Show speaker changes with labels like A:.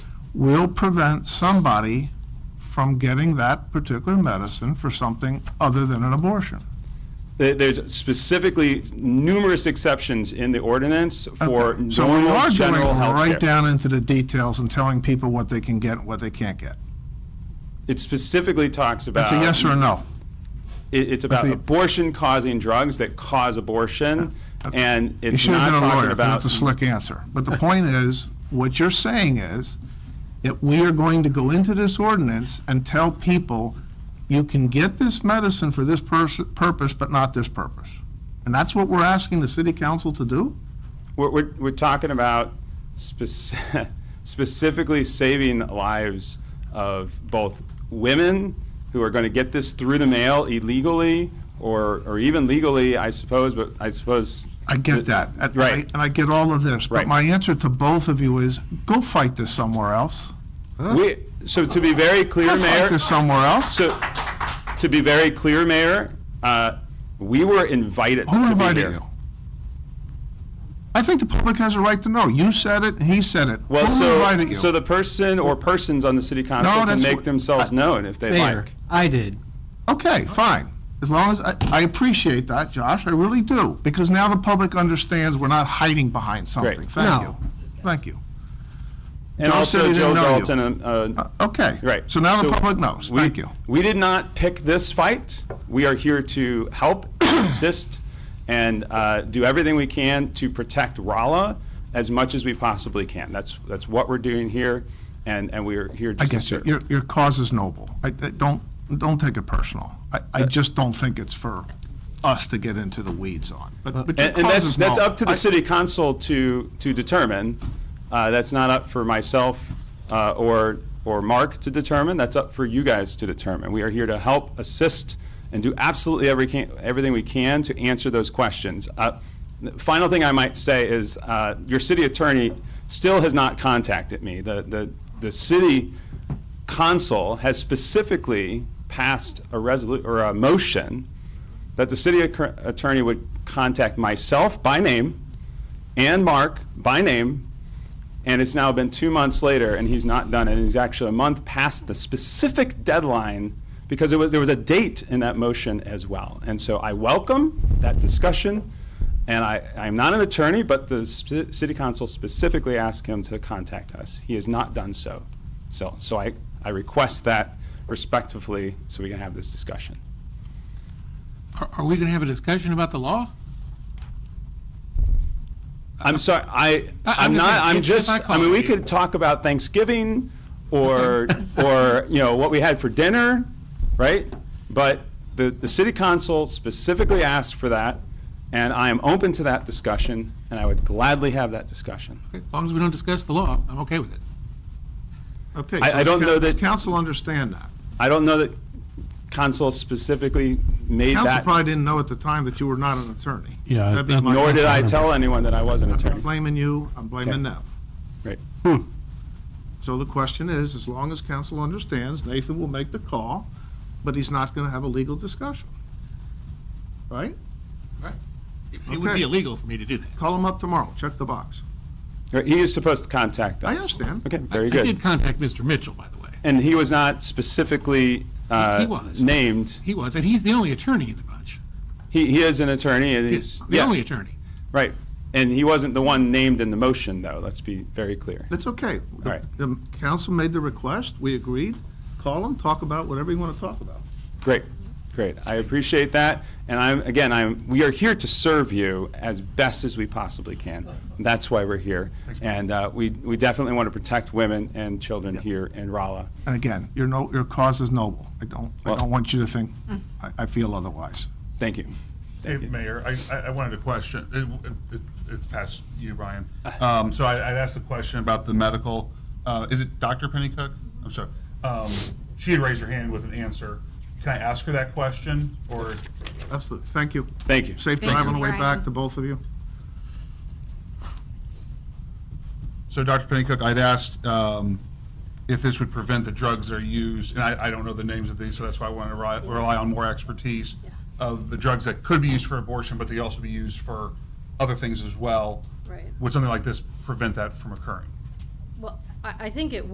A: will prevent somebody from getting that particular medicine for something other than an abortion.
B: There- There's specifically numerous exceptions in the ordinance for
A: Okay. So we
B: normal
A: are going
B: general health
A: right
B: care.
A: down into the details and telling people what they can get and what they can't get.
B: It specifically talks about.
A: It's a yes or no.
B: It, it's about
A: That's a-
B: abortion causing drugs that cause abortion,
A: Uh,
B: and
A: You
B: it's
A: should have
B: not
A: been a
B: talking
A: lawyer, 'cause
B: about.
A: that's a slick answer. But the point is, what you're saying is that we are going to go into this ordinance and tell people, you can get this medicine for this pers- purpose, but not this purpose. And that's what we're asking the city council to do?
B: We're, we're, we're talking about speci- specifically saving lives of both women who are going to get this through the mail illegally or, or even legally, I suppose, but I suppose.
A: I get
B: it's-
A: that. and I-
B: Right.
A: And I get all of this. But
B: Right.
A: my answer to both of you is, go fight this somewhere else.
B: We, so to be very clear,
A: Go fight
B: Mayor,
A: this somewhere else.
B: so, to be very clear, Mayor, uh, we were invited to be
A: Who
B: here.
A: invited you? I think the public has a right to know. You said it, and he said it.
B: Well,
A: Who invited
B: so,
A: you?
B: so the person or persons on the city council can
A: that's
B: make
A: wh-
B: themselves
A: I-
B: known if they
C: Mayor,
B: like.
C: I did.
A: Okay, fine. As long as, I, I appreciate that, Josh, I really do, because now the public understands we're not hiding behind something.
B: Great.
A: Thank you.
C: No.
A: Thank you.
B: And
A: Joe said
B: also
A: he didn't
B: Joe
A: know you.
B: Dalton, uh, uh,
A: Okay.
B: right.
A: So now the public knows.
B: we-
A: Thank you.
B: We did not pick this fight. We are here to help, assist, and uh, do everything we can to protect Rolla as much as we possibly can. That's, that's what we're doing here, and, and we are here
A: I
B: just to
A: guess your,
B: serve.
A: your your cause is noble. I, I don't, don't take it personal. I,
B: Uh,
A: I just don't think it's for us to get into the weeds on, but, but your
B: And, and
A: cause
B: that's,
A: is
B: that's
A: noble.
B: up to the
A: I-
B: city council to, to determine. Uh, that's not up for myself, uh, or, or Mark to determine. That's up for you guys to determine. We are here to help, assist, and do absolutely every can, everything we can to answer those questions. Uh, the Final thing I might say is, uh, your city attorney still has not contacted me. The, the, the city council has specifically passed a resolu, or a motion that the city acc- attorney would contact myself by name and Mark by name, and it's now been two months later, and he's not done it. He's actually a month past the specific deadline because it was, there was a date in that motion as well. And so I welcome that discussion, and I, I'm not an attorney, but the sp- city council specifically asked him to contact us. He has not done so. So, so I, I request that respectfully so we can have this discussion.
D: Are, are we going to have a discussion about the law?
B: I'm sorry, I,
D: I-
B: I'm
D: I'm just
B: not,
D: saying,
B: I'm
D: if-
B: just,
D: if I
B: I mean, we
D: call you-
B: could talk about Thanksgiving or, or, you know, what we had for dinner, right? But the, the city council specifically asked for that, and I am open to that discussion, and I would gladly have that discussion.
D: As long as we don't discuss the law, I'm okay with it.
A: Okay.
B: I-
A: so
B: I don't
A: does
B: know
A: coun- does
B: that-
A: Council understand that.
B: I don't know that council specifically made
A: Council
B: that,
A: probably didn't know at the time that you were not an attorney.
E: Yeah,
A: That'd be
E: that-
A: my
B: nor did I
A: guess.
B: tell anyone that I was an
A: I'm
B: attorney,
A: blaming you, I'm blaming them. Hmm.
B: right?
A: So the question is, as long as council understands, Nathan will make the call, but he's not going to have a legal discussion. Right?
D: Right. It it would
A: Okay.
D: be illegal for me to do that.
A: Call him up tomorrow, check the box.
B: Right, He is supposed to contact us.
A: I understand.
B: Okay,
D: I-
B: very
D: I
B: good.
D: did contact Mr. Mitchell, by the way.
B: And he was not specifically,
D: He
B: uh,
D: was.
B: named.
D: He was, and he's the only attorney in the bunch.
B: He, he is an attorney, and he's,
D: The only
B: yes,
D: attorney.
B: right. And he wasn't the one named in the motion, though, let's be very clear.
A: That's okay. The-
B: right.
A: The council made the request, we agreed. Call him, talk about whatever you want to talk about.
B: Great, great, I appreciate that, and I'm, again, I'm, we are here to serve you as best as we possibly can. That's why we're here, and uh, we, we definitely want to protect women and children here in Rolla.
A: And again, your no, your cause is noble. I don't, I
B: Well-
A: don't want you to think,
D: Mm.
A: I, I feel otherwise.
B: Thank you.
F: Hey, Mayor, I- I, I wanted a question. It- it- It's past you, Ryan. Um, So I, I'd asked the question about the medical, uh, is it Dr. Pennycook? I'm sorry. Um, She had raised her hand with an answer. Can I ask her that question, or?
A: Absolutely, thank you.
B: Thank you.
A: Safe
D: Thank
A: drive on
D: you.
A: the way back
G: Brian.
A: to both of you.
F: So, Dr. Pennycook, I'd asked um, if this would prevent the drugs that are used, and I, I don't know the names of these, so that's why I want to rely, rely on more expertise of the drugs that could be used for abortion, but they also be used for other things as well.
G: Right.
F: Would something like this prevent that from occurring?
G: Well, I, I think it